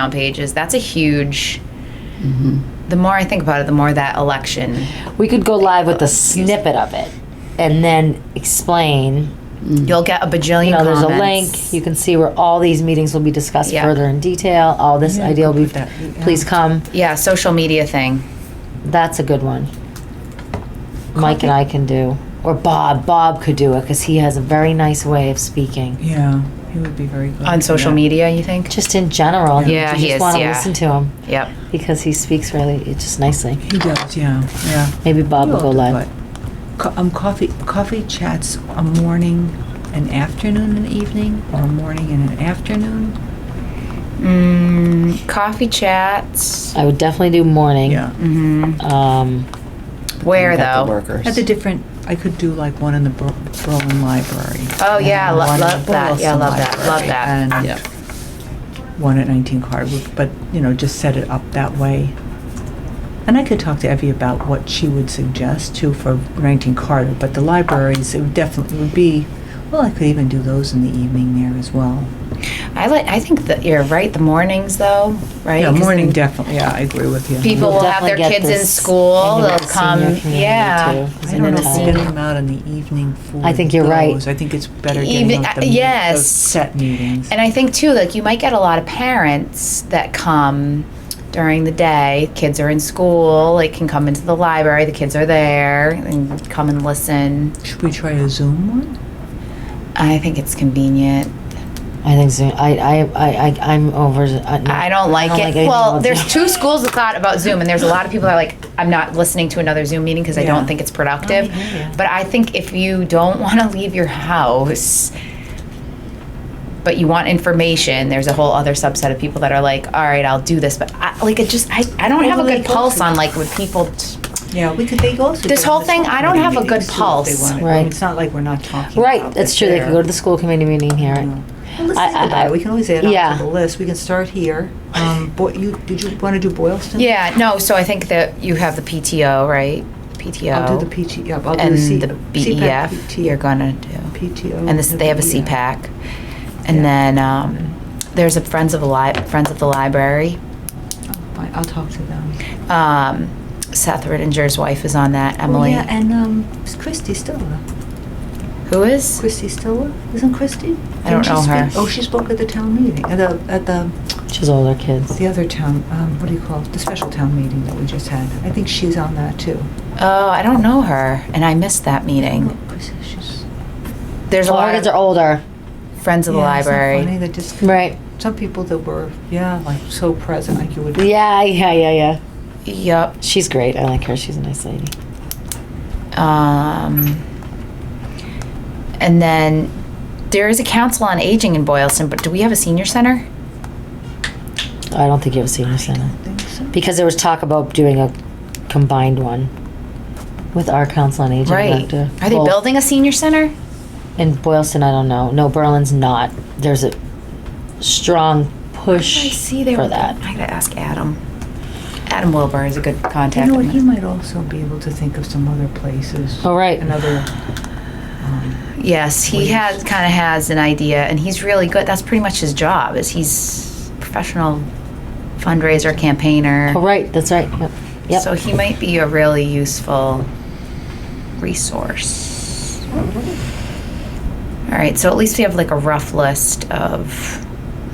on pages. That's a huge. Mm-hmm. The more I think about it, the more that election. We could go live with a snippet of it and then explain. Mm-hmm. You'll get a bajillion. You know, there's a comments. link. You can see where all these meetings will be discussed Yeah. further in detail. All this idea will be. Please come. Yeah, social media thing. That's a good one. Mike and I can do, or Bob. Bob could do it because he has a very nice way of speaking. Yeah, he would be very good. on social media you think Just in general, you Yeah, just he is, want to yeah. listen to him yep because he speaks really it's just nicely. He does, yeah, yeah. Maybe Bob will go live. Co- Um, coffee, coffee chats a morning, an afternoon, an evening, or a morning and an afternoon? mm, coffee chats I would definitely do morning. Yeah. Um, where Got the though workers. At the different, I could do like one in the Bur- Berlin Library. oh yeah and lo- one in love the that yeah Burleson love that love Library, that And Yeah. one at 19 Hardwood, but, you know, just set it up that way. And I could talk to Evie about what she would suggest too for 19 Carter, but the libraries, it would definitely would be, well, I could even do those in the evening there as well. i like i think that you're right the mornings though right Yeah, 'Cause morning then definitely, yeah, I agree with you. people We'll will have their definitely get kids in this school into they'll the come senior community, yeah too, 'cause I in don't know the if we're time- getting them out in the evening for I think you're right. those. I think it's better Even- getting out uh, the meet- yes. those set meetings. and i think too like you might get a lot of parents that come during the day kids are in school like can come into the library the kids are there and come and listen Should we try a Zoom one? i think it's convenient I think so. I I I I- I'm over. I, no, I don't like it. anything well, about there's Zoom. two schools of thought about Zoom, and there's a lot of people that are like, I'm not listening to another Zoom meeting because I Yeah. don't think it's productive. I hear ya. but I think if you don't want to leave your house, but you want information, there's a whole other subset of people that are like, all right, I'll do this. But I, like, it just, I, I don't have a good pulse on like with people. T- Yeah, we could, they also. This whole thing, I don't have a good pulse. Right. It's not like we're not talking Right, about that's it true. They could there. go to the school committee meeting and hear it. No. Well, let's I- think about I- it. We can always add yeah. on to the list. We can start here. Um, Boy, you, did you want to do Boylston? yeah, no. So I think that you have the PTO, right? PTO. I'll do the PT, yeah, I'll do and the C. the CPAC, BEF. PT, You're gonna do. PTO. and this, they have a BEF. CPAC. And then um, there's a Friends of the Li- Friends of the Library. Fine, I'll talk Oh, to them. Um, Seth Rittinger's wife is on that. Oh, Emily, Yeah, and, um, is Christie still alive? who is? Christy Stiller, isn't Christy? I don't Didn't she know her. speak- Oh, she spoke at the town meeting, at the, at the, Mm-hmm. She's older kids. the other town, um, what do you call it, the special town meeting that we just had. I think she's on that too. Oh, I don't know her, and I missed that Oh, meeting. Christy, she's- There's a Well, our lot kids Oh, are of older, Friends of the Yeah, isn't that Funny, Library. that just, right? some people that were, yeah, like so present, like you would. Yeah, yeah, yeah, yeah. Yep. She's great. I like her. She's a nice lady. Um, and then there is a Council on Aging in Boylston, but do we have a senior center? I don't think you have a senior center think so. because there was talk about doing a combined one with our council on aging. Right. Dr. Are they Wolf. building a senior center? in Boylston? I don't know. No, Berlin's not. There's a strong push I see they for were that. I gotta ask Adam. Adam Wilbur is a good You contact. know what, he might also be able to think of some other places. All Oh, right. Another, um, yes, he Please. has kind of has an idea, and he's really good. That's pretty much his job. Is he's professional fundraiser campaigner. Oh, right. That's right. Yep. Yep. So he might be a really useful resource. All right, so at least we have like a rough list of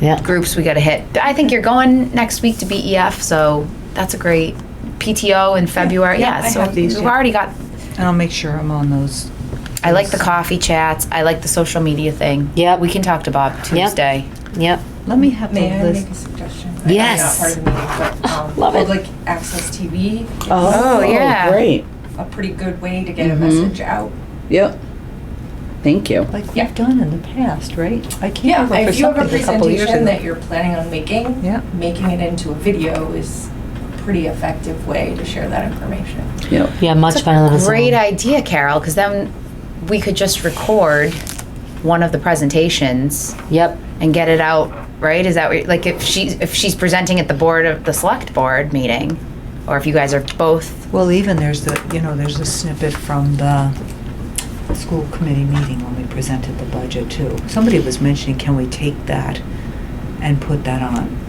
yeah. groups we got to hit. I think you're going next week to BEF, so that's a great PTO in February. yeah, Yeah, I so have these, we've yeah. already got. and I'll make sure I'm on those. I like the coffee chats. I like the social media thing. Yep. we can talk to Bob Tuesday. Yep. Let me have the May I list. make a suggestion? Yes. I know it's Part of the meeting, but, um, Love it. Public access TV, Oh, yeah. Great. a pretty good way to Mm-hmm. get a message out. Yep. Thank you. Like Yeah. we've done in the past, right? I came Yeah, over for if you have a something a couple years presentation ago. that you're planning on making, Yeah. making it into a video is a pretty effective way to share that information. Yep. Yeah. Much better than a Zoom. Great idea, Carol. Because then we could just record one of the presentations Yep. and get it out. Right? Is that what, you- like if she's if she's presenting at the board of the select board meeting, or if you guys are both? Well, even there's the, you know, there's a snippet from the school committee meeting when we presented the budget too. Somebody was mentioning, can we take that and put that on